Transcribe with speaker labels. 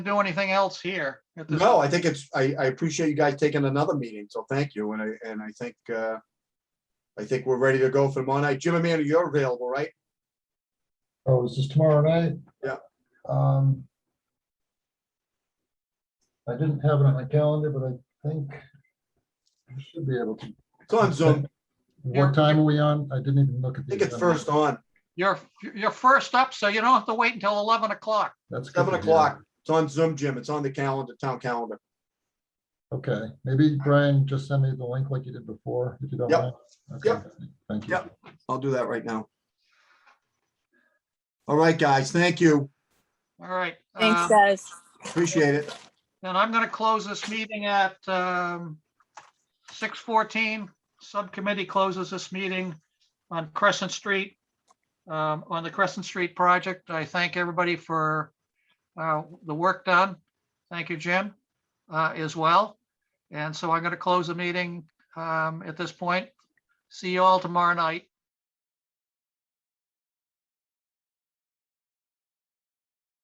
Speaker 1: do anything else here. at this-
Speaker 2: No, I think it's, I, I appreciate you guys taking another meeting, so thank you, and I, and I think, uh, I think we're ready to go for tomorrow night. Jim Amanda, you're available, right?
Speaker 3: Oh, is this tomorrow night?
Speaker 2: Yeah.
Speaker 3: Um. I didn't have it on my calendar, but I think I should be able to.
Speaker 2: It's on Zoom.
Speaker 1: Yeah.
Speaker 3: What time are we on? I didn't even look at.
Speaker 2: I
Speaker 3: the
Speaker 2: think it's
Speaker 3: agenda.
Speaker 2: first on.
Speaker 1: You're, you're first up, so you don't have to wait until 11 o'clock.
Speaker 3: That's. good
Speaker 2: Seven
Speaker 3: to hear.
Speaker 2: o'clock. It's on Zoom, Jim. It's on the calendar, town calendar.
Speaker 3: Okay, maybe Brian, just send me the link like you did before, if you don't
Speaker 2: Yep.
Speaker 3: mind. Okay,
Speaker 2: Yep.
Speaker 3: Thank you.
Speaker 2: Yep. I'll do that right now. All right, guys, thank you.
Speaker 1: All right.
Speaker 4: Thanks,
Speaker 1: um,
Speaker 4: guys.
Speaker 2: Appreciate it.
Speaker 1: And I'm going to close this meeting at um, 6:14. Subcommittee closes this meeting on Crescent Street, um, on the Crescent Street project. I thank everybody for uh, the work done. Thank you, Jim, uh, as well. And so I'm going to close the meeting um, at this point. See you all tomorrow night.